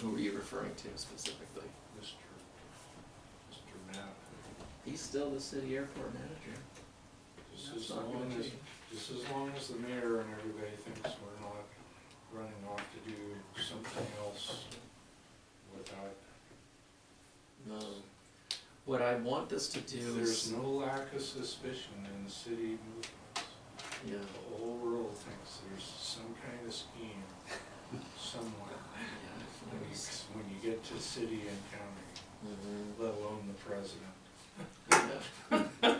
Who are you referring to specifically? Mr. Mr. Matt. He's still the city airport manager. Just That's as not long gonna as, change. just as long as the mayor and everybody thinks we're not running off to do something else without, No. Um, What I want this to do there's is, no lack of suspicion in the city movements. yeah, The whole world thinks there's some kind of scheme somewhere, yeah. when you, when you get to city and county, Mhm. let alone the president. Yeah.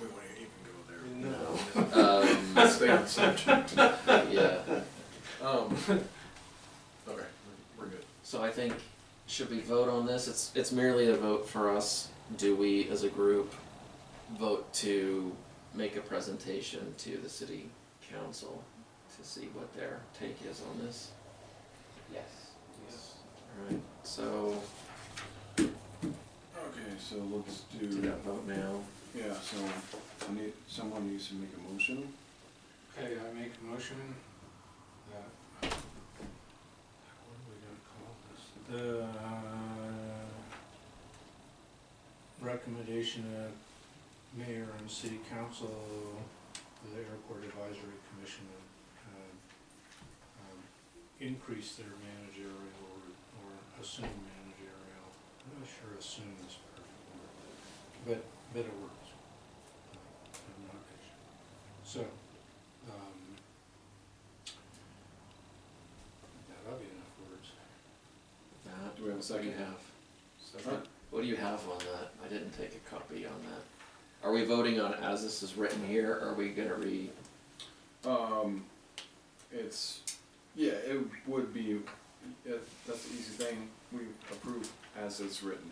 We won't even go there. No. Let's Um, Stay on subject. yeah, Um, okay, we're- we're good. so I think, should we vote on this? It's, it's merely a vote for us. Do we, as a group, vote to make a presentation to the city council to see what their take is on this? Yes. Yes. Alright, so, Okay, so let's do do, that vote now. yeah, so I need, someone needs to make a motion. Okay, I make a motion that, what are we gonna call this? The uh, recommendation of mayor and city council, the airport advisory commission, uh, um, increase their managerial or, or assume managerial, I'm not sure assume is the perfect word, but, but it works. I'm not sure. So, um, that'll be enough words. That. Do we have a What do you second? have? Second. What do you have on that? I didn't take a copy on that. Are we voting on as this is written here, or are we gonna read? Um, it's, yeah, it would be, it, that's the easy thing, we approve as it's written.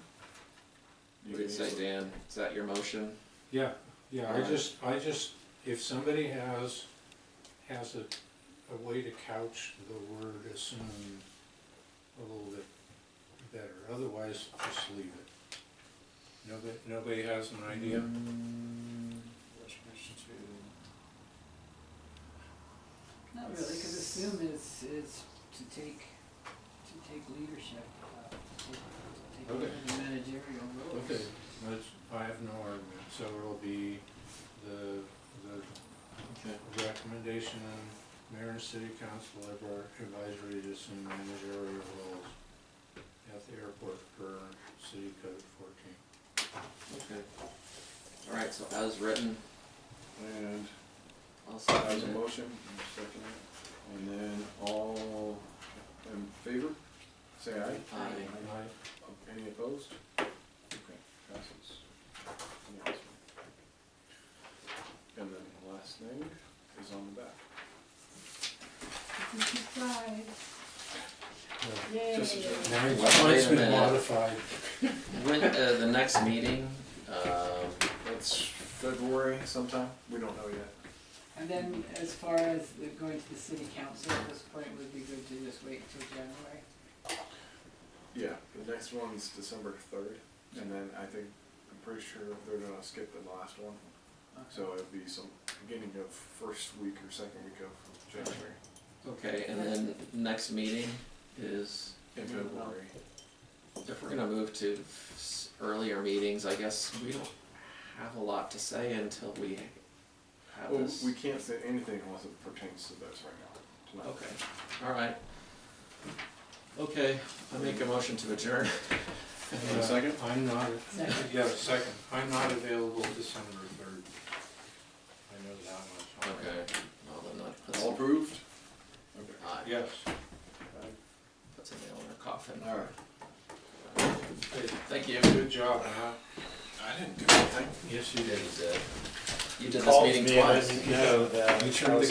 You What did it can say, easily- Dan? Is that your motion? Yeah, yeah, I Alright. just, I just, if somebody has, has a, a way to couch the word assume a little bit better, otherwise just leave it. Nobody, nobody has an idea? Reservation Not really, because assume is, is to take, to take leadership, uh, to take, to Okay. take the managerial roles. Okay, that's, I have no argument, so it'll be the, the Okay. recommendation, mayor and city council Airport advisory to assume managerial roles at the airport per city code fourteen. Okay. All right. So as written, two. And I'll second as a it. motion, you second it. and then all in favor, say aye. Aye. Any opposed? Okay, passes. Unanimously. And then the last thing is on the back. Fifty-five, Yeah. yay. Just a joke. Mine's, Wait a mine's been minute. modified. When uh, the next meeting? Um, That's February sometime, we don't know yet. And then as far as the going to the city council at this point, would be good to just wait till January. Yeah, the next one's December third, and then I think, I'm pretty sure they're gonna skip the last one. So it'd be some beginning of first week or second week of January, okay. And then next meeting is in February. if we're gonna move to s- earlier meetings. I guess we don't have a lot to say until we have Well, this. we can't say anything unless it pertains to this right now, tonight. Okay, all right. Okay, I make a motion to adjourn. a second? Uh, I'm not, Second. yeah, second, I'm not available December third. I know that much. Well, then that puts, All approved? Okay. aye, Yes, puts a nail in our coffin. All right. Hey, Thank you. good job, Matt. I didn't do anything. Yes, you You did. did. You did this meeting twice. You know that. You turned the